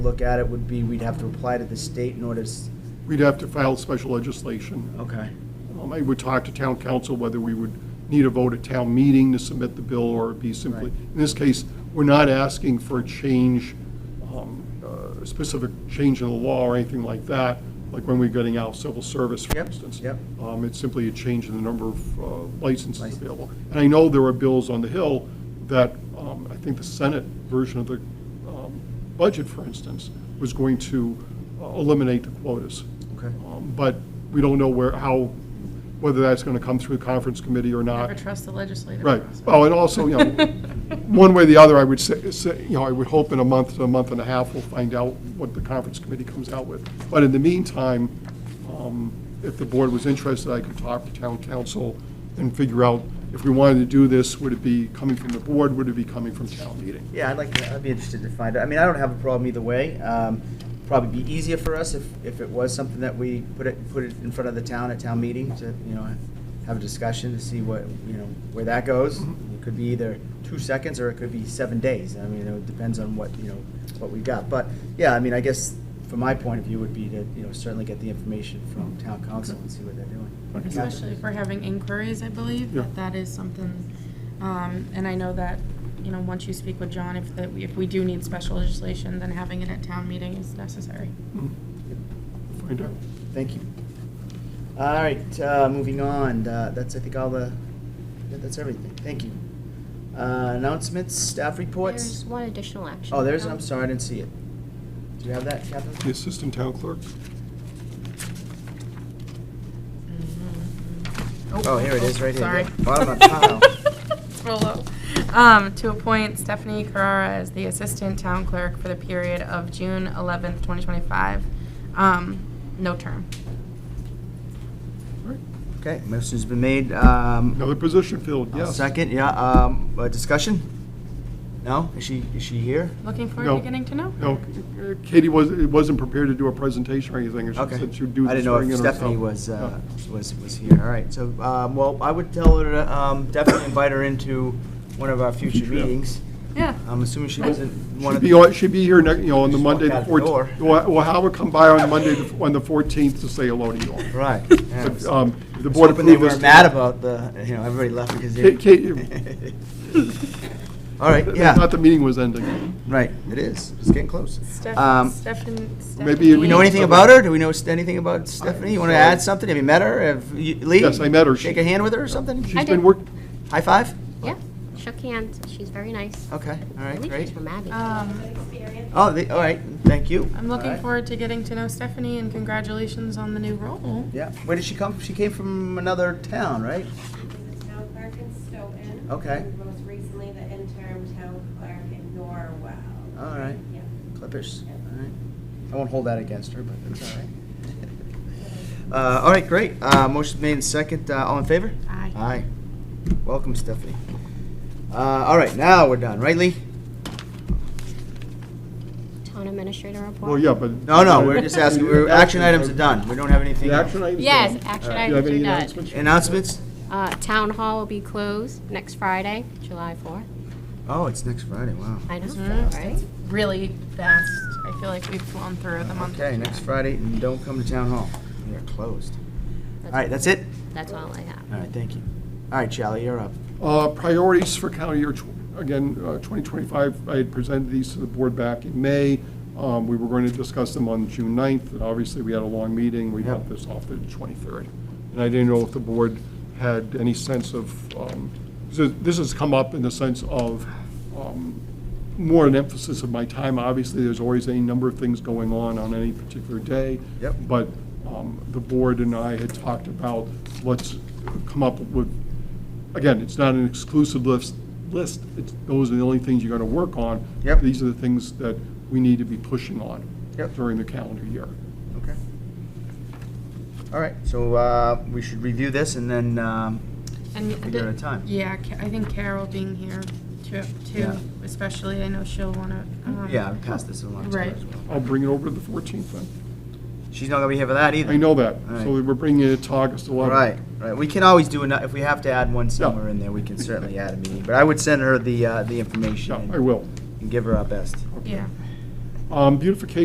look at it would be, we'd have to apply to the state in order to, s- We'd have to file special legislation. okay, Um, I would talk to town council whether we would need a vote at town meeting to submit the bill or be simply, Right. in this case, we're not asking for a change, um, uh, specific change in the law or anything like that, like when we're getting out civil service, for Yep, instance. yep. Um, It's simply a change in the number of uh, licenses License. available. And I know there are bills on the Hill that, um, I think the Senate version of the um, budget, for instance, was going to uh, eliminate the quotas. okay. Um, But we don't know where, how, whether that's going to come through the conference committee or Never not. trust the legislative Right. process. Oh, and also, you know, one way or the other, I would say, say, you know, I would hope in a month to a month and a half, we'll find out what the conference committee comes out with. But in the meantime, um, if the board was interested, I could talk to town council and figure out if we wanted to do this, would it be coming from the board, would it be coming from town meeting? Yeah, I'd like, to. I'd be interested to find out. I mean, I don't have a problem either way. Um, Probably be easier for us if, if it was something that we put it, put it in front of the town at town meeting to, you know, have a discussion to see what, you know, where that goes. It could be either two seconds or it could be seven days. I mean, it depends on what, you know, what we got. But, yeah, I mean, I guess from my point of view would be to, you know, certainly get the information from town council and see what they're doing. Especially if we're having inquiries, I believe, Yeah. that that is something, um, and I know that, you know, once you speak with John, if, that if we do need special legislation, then having it at town meeting is necessary. Find out. Thank you. All right, uh, moving on, Uh, that's, I think, all the, that- that's everything, thank you. Uh, Announcements, staff reports? There's one additional action. Oh, there's, item. I'm sorry, I didn't see it. Do you have that, The Catherine? assistant town clerk? Oh, here it is, right here. Sorry. Bottom of the pile. Roll up. Um, to appoint Stephanie Carrara as the assistant town clerk for the period of June eleventh, twenty twenty-five, um, no term. Okay, motion's been made. Um, Another position filled, I'll yes. Second, yeah, um, uh, discussion? No, is she, is she here? Looking forward No. to getting to know her. No, Katie was, wasn't prepared to do a presentation or anything, she Okay. said she would do I this didn't know during it if herself. Stephanie was, uh, Yeah. was, was here. All right, so, um, well, I would tell her to um, definitely invite her into one of our future Future, yeah. meetings. Yeah. I'm assuming she wasn't one She'd of be, the, on- she'd be here, next- you know, on the Just walk Monday, the out the 14th. Well, well, Howard come by on Monday, the- on the 14th to say hello to you all. right. yeah. But, um, if the I was board hoping they approved this. weren't mad about the, you know, everybody left because Kate- Kate, you- they. All right, I yeah, thought the meeting was ending. right, it is. It's getting close. Steph- Um, Stephan- Stephanie. maybe Do we know anything about her? Do we know s- anything about Stephanie? You want to add something? Have you met her? Have you, Lee? Yes, I met her. Shake a hand with her or something? She's did. been work, High five? Yeah, shook hands, she's very nice. Okay, all I right, believe she's great. from Abbey. Uh, Um, Oh, the- all right, thank you. I'm All looking right. forward to getting to know Stephanie and congratulations on the new role. Yeah, where did she come? She came from another town, right? The town clerk in Stoughton. Okay. and Most recently, the interim town clerk in Norwell. All right, Yeah. Clippers, all right. I won't hold that against her, but that's all right. Uh, all right, great. Uh, motion made and second. Uh, all in favor? Aye. Aye. Welcome, Stephanie. Uh, all right, now we're done, right, Lee? Town administrator report. well, yeah, but. No, no, we're just asking, we're, action items are done. We don't have anything The else. action items? Yes, done. action Do you items have are any done. announcements? Announcements? Uh, Town hall will be closed next Friday, July 4th. Oh, it's next Friday, wow. I know, Mhm. Mm-hmm. right? Really fast. I feel like we've flown through the month. of Okay, next July. Friday, and don't come to town hall. We are closed. All right, that's it? That's all I have. All right, thank you. All right, Charlie, you're up. Uh, Priorities for county year, tw- again, uh, 2025, I had presented these to the board back in May. Um, We were going to discuss them on June 9th, and obviously, we had a long meeting. We got Yep. this off the 23rd. And I didn't know if the board had any sense of, um, so this has come up in the sense of um, more an emphasis of my time. Obviously, there's always a number of things going on on any particular day. Yep. But um, the board and I had talked about, let's come up with again, it's not an exclusive list, list, it's, those are the only things you're gonna work on. Yep. These are the things that we need to be pushing on Yep. during the calendar year. Okay. All right, so uh, we should review this and then, um, And We got a time. Yeah, Ca- I think Carol being here too, too, Yeah. especially, I know she'll wanna, um. yeah, I'll pass this along to her Right. as well. I'll bring it over to the 14th then. She's not gonna be here for that either. I know that, All right. so we're bringing it to August 11th. Right, right. We can always do, ano- if we have to add one somewhere in there, we can certainly add a meeting. But I would send her the, uh, the Yeah, information. I will. And give her our best. Yeah. Um, Beautification